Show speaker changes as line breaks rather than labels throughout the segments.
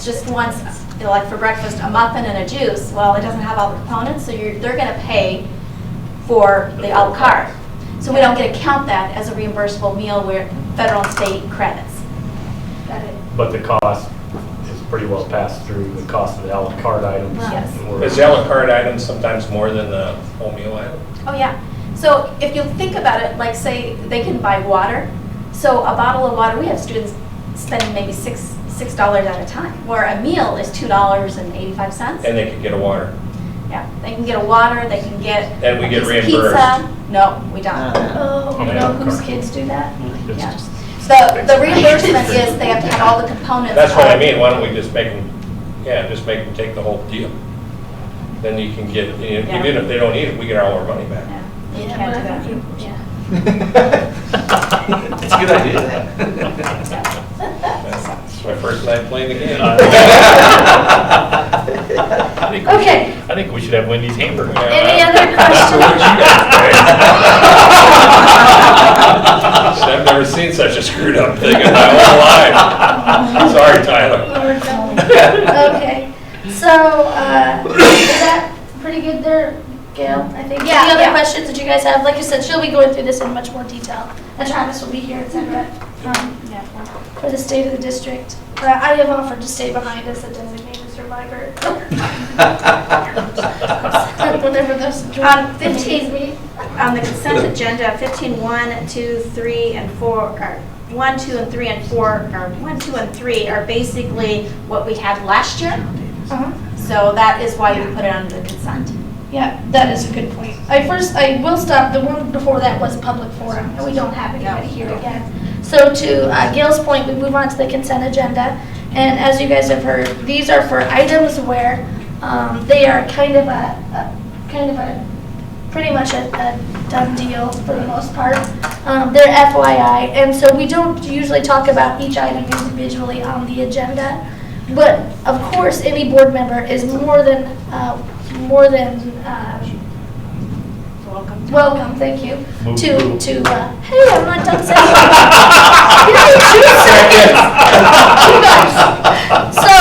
just wants, like for breakfast, a muffin and a juice, well, it doesn't have all the components, so you're, they're gonna pay for the à la carte. So we don't get to count that as a reimbursable meal where federal and state credits.
Got it.
But the cost is pretty well passed through the cost of the à la carte items.
Yes.
Or-
Is the à la carte item sometimes more than the whole meal item?
Oh, yeah. So if you think about it, like say, they can buy water. So a bottle of water, we have students spending maybe six, six dollars at a time, where a meal is two dollars and eighty-five cents.
And they could get a water.
Yeah, they can get a water, they can get.
And we
a
get
piece of
reimbursed.
Pizza. No, we don't.
Oh,
Oh,
you
yeah.
know whose kids do that?
It's
Yeah.
just-
The, the reimbursement is they have to have all the components.
That's what I
of-
mean, why don't we just make them, yeah, just make them take the whole deal? Then you can get, you know, even if they don't eat it, we get all our money back.
Yeah, you
Yeah,
can't
but
do
I
that.
think you- yeah.
It's a good idea.
It's my first night playing the game.
I think we should-
Okay,
I think we should have Wendy's hamburger.
Yeah.
any other
So what you
questions?
guys think? I've never seen such a screwed up thing in my whole life. Sorry, Tyler.
Lord, no.
Oh,
Okay, so, uh, is that pretty good there, Gail? I think,
Yeah,
any other
yeah.
questions that you guys have? Like I said, she'll be going through this in much more detail, and Travis will be here, et cetera, um, for the state of the district. But I have offered to stay behind as a designated survivor, whenever those.
Um, 15.
meet.
On the consent agenda, 15, 1, 2, 3, and 4, or 1, 2, and 3, and 4, or 1, 2, and 3 are basically what we had last year.
Uh-huh.
So that is why we put it under the consent.
Yeah, that is a good point. I first, I will stop, the one before that was public forum, and we don't have anybody here again. So to uh, Gail's point, we move on to the consent agenda, and as you guys have heard, these are for items where um, they are kind of a, a- kind of a, pretty much a a done deal for the most part. Um, They're FYI, and so we don't usually talk about each item individually on the agenda. But of course, any board member is more than, uh, more than um,
Welcome.
welcome, thank you,
Move
to,
through.
to, uh, hey, I'm not done saying. You know, in two seconds. You guys. So,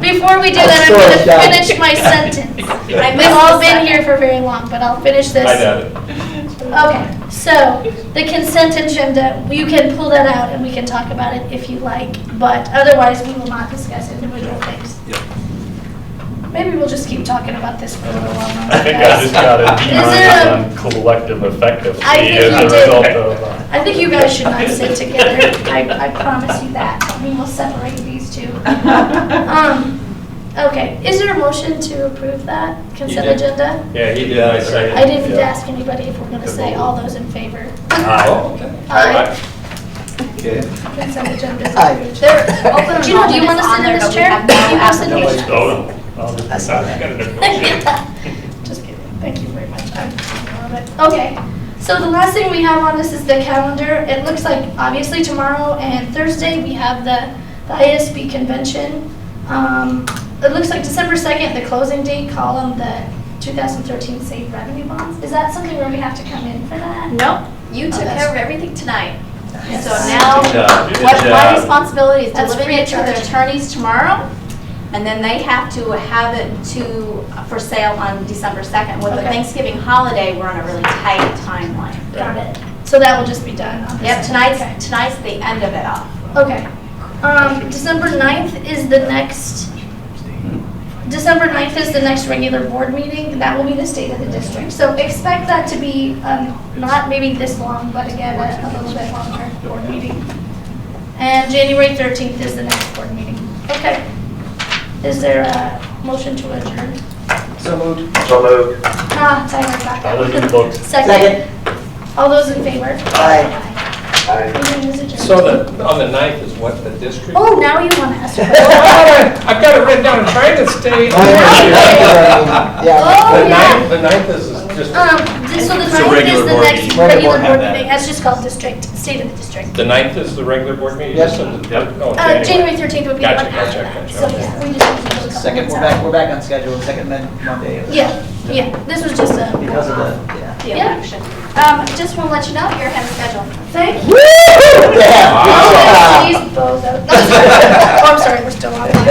before we do that, I'm
Sorry,
gonna
John.
finish my sentence.
I
We've all been here for very long, but I'll finish this.
I doubt it.
Okay, so the consent agenda, you can pull that out and we can talk about it if you like, but otherwise we will not discuss individual things.
Yep.
Maybe we'll just keep talking about this for a little while. longer,
I think I
guys.
just got a D
Is there a-
on collective effectiveness
I think you
as a
did.
result of. uh,
I think you guys should not sit together. I, I promise you that. We will separate these two. Um, okay, is there a motion to approve that consent
did.
agenda?
Yeah, he did, I second.
I didn't
Yeah.
ask anybody if we're gonna say all those in favor.
Aye.
Oh, okay.
Aye.
Okay.
Consent agenda is
Aye.
approved.
There, open
Gino, do you
enrollment
want
is
to
on
sit in
there,
this
but we
chair?
have no
You want to sit in this
Nobody's-
chair?
Oh, no. I'll just-
I saw that.
Gotta negotiate.
Just kidding. Thank you very much. I'm a little bit- Okay. So the last thing we have on this is the calendar. It looks like obviously tomorrow and Thursday we have the, the ISB convention. Um, it looks like December second, the closing date, call on the 2013 state revenue bonds. Is that something where we have to come in for that?
Nope, you
Oh,
took
that's-
care of everything tonight.
Yes.
So now,
Good job, good
what my
job.
responsibility is
That's
delivering
free
it to
of
the
charge.
attorneys tomorrow, and then they have to have it to, for sale on December 2nd. With the
Okay.
Thanksgiving holiday, we're on a really tight timeline.
Got it. So that will just be done on this.
Yep,
Okay.
tonight's, tonight's the end of it all.
Okay. Um, December 9th is the next, December 9th is the next regular board meeting. and That will be the state of the district. So expect that to be, um, not maybe this long, but again, a a little bit longer board meeting. And January 13th is the next board meeting. Okay. Is there a motion to adjourn?
So moved.
Ah, Tyler got that.
I'll leave the books.
Second. All those in favor?
Aye.
Aye. Meeting is adjourned.
So the, on the ninth is what, the district?
Oh, now you want to ask.
I've got it written down, I'm trying to stay.
Yeah.
Oh,
The
yeah.
ninth, the ninth is is just.
Um, th- so the
a
ninth is
regular
the
board
next
meeting.
regular
Regular board
board
had that.
meeting, that's just called district, state of the district.
The ninth is the regular board meeting?
Yep.
Just on the-
Yep.
oh,
Uh, January thirteenth would be the one
Gotcha,
after
gotcha,
that,
gotcha,
so
okay.
yeah, we just need to go a couple
Second,
months
we're
out.
back, we're back on schedule, second Mon- Monday. of-
Yeah, yeah, this was just a.
Because of the, yeah.
The
Yeah.
election. Um, just want to let you know, you're ahead of schedule.
Thank you.
Woo! Yeah, good
Oh,
job.
These bozos. Oh, I'm sorry, we're still online.